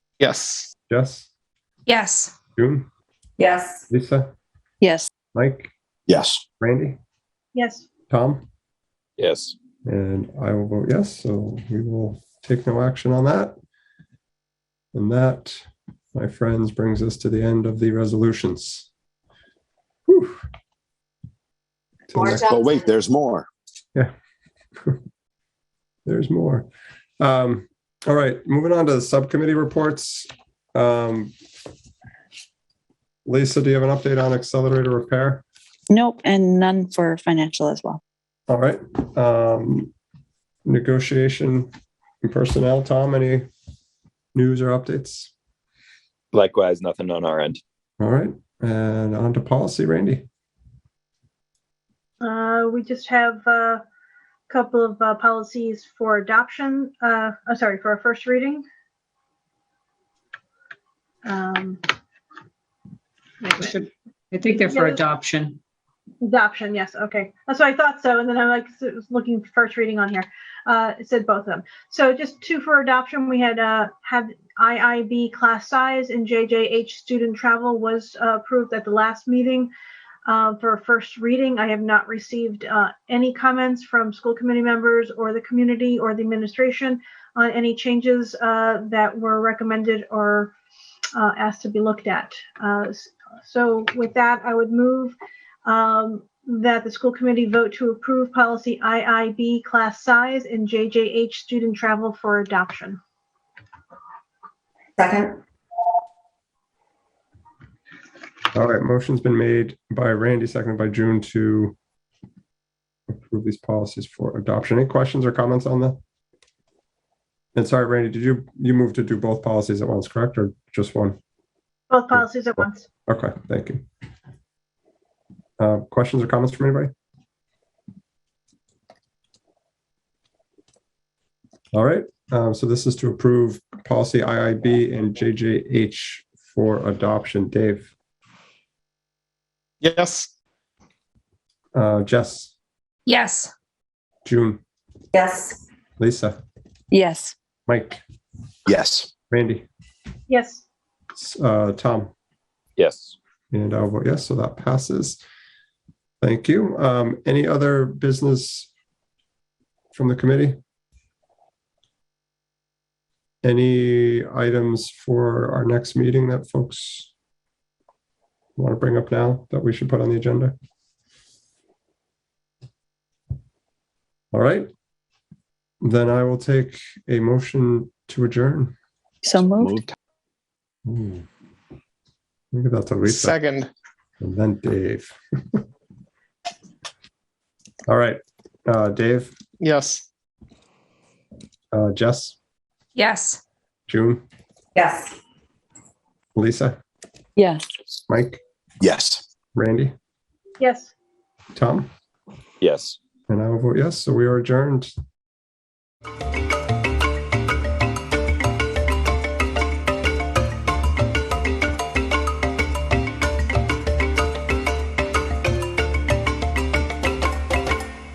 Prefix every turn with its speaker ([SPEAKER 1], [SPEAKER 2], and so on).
[SPEAKER 1] Yes.
[SPEAKER 2] Jess,
[SPEAKER 3] Yes.
[SPEAKER 2] June,
[SPEAKER 4] Yes.
[SPEAKER 2] Lisa,
[SPEAKER 5] Yes.
[SPEAKER 2] Mike,
[SPEAKER 6] Yes.
[SPEAKER 2] Randy,
[SPEAKER 3] Yes.
[SPEAKER 2] Tom,
[SPEAKER 6] Yes.
[SPEAKER 2] and I will vote yes. So we will take no action on that. And that, my friends, brings us to the end of the resolutions. Whew. Till next-
[SPEAKER 6] But wait, there's more.
[SPEAKER 2] There's more. Um, all right, moving on to the subcommittee reports. Um, Lisa, do you have an update on accelerator repair?
[SPEAKER 5] Nope. And none for financial as well.
[SPEAKER 2] All right. Um, negotiation and personnel, Tom, any news or updates?
[SPEAKER 7] Likewise, nothing on our end.
[SPEAKER 2] All right, and on to policy, Randy.
[SPEAKER 8] Uh, we just have uh, a couple of uh, policies for adoption, uh, I'm sorry, for our first reading. Um, wait a minute.
[SPEAKER 9] Should- I think they're for
[SPEAKER 8] Yeah.
[SPEAKER 9] adoption.
[SPEAKER 8] Adoption, yes, okay. That's what I thought so, and then I'm like, so it was looking for first reading on here. Uh, it said both of them. So just two for adoption, we had, uh, have IIB class size and JJH student travel was uh, approved at the last meeting. Uh, for first reading, I have not received, uh, any comments from school committee members or the community or the administration on any changes, uh, that were recommended or, uh, asked to be looked at. Uh, s- so with that, I would move um, that the school committee vote to approve policy IIB class size and JJH student travel for adoption.
[SPEAKER 4] Second?
[SPEAKER 2] All right, motion's been made by Randy, seconded by June to approve these policies for adoption. Any questions or comments on that? And sorry, Randy, did you, you move to do both policies at once, correct, or just one?
[SPEAKER 8] Both policies at once.
[SPEAKER 2] Okay, thank you. Uh, Questions or comments from anybody? All right, um, so this is to approve policy IIB and JJH for adoption. Dave,
[SPEAKER 1] Yes.
[SPEAKER 2] uh, Jess,
[SPEAKER 3] Yes.
[SPEAKER 2] June,
[SPEAKER 4] Yes.
[SPEAKER 2] Lisa,
[SPEAKER 5] Yes.
[SPEAKER 2] Mike,
[SPEAKER 6] Yes.
[SPEAKER 2] Randy,
[SPEAKER 8] Yes.
[SPEAKER 2] s- uh, Tom.
[SPEAKER 7] Yes.
[SPEAKER 2] And I'll vote yes, so that passes. Thank you. Um, any other business from the committee? Any items for our next meeting that folks want to bring up now that we should put on the agenda? All right. Then I will take a motion to adjourn.
[SPEAKER 5] So moved.
[SPEAKER 6] Moved.
[SPEAKER 2] Ooh. Look at that, to Lisa.
[SPEAKER 1] Second.
[SPEAKER 2] And then Dave. All right, uh, Dave,
[SPEAKER 1] Yes.
[SPEAKER 2] uh, Jess,
[SPEAKER 3] Yes.
[SPEAKER 2] June,
[SPEAKER 4] Yes.
[SPEAKER 2] Lisa,
[SPEAKER 5] Yes.
[SPEAKER 2] Mike,
[SPEAKER 6] Yes.
[SPEAKER 2] Randy,
[SPEAKER 8] Yes.
[SPEAKER 2] Tom,
[SPEAKER 7] Yes.
[SPEAKER 2] and I will vote yes. So we are adjourned.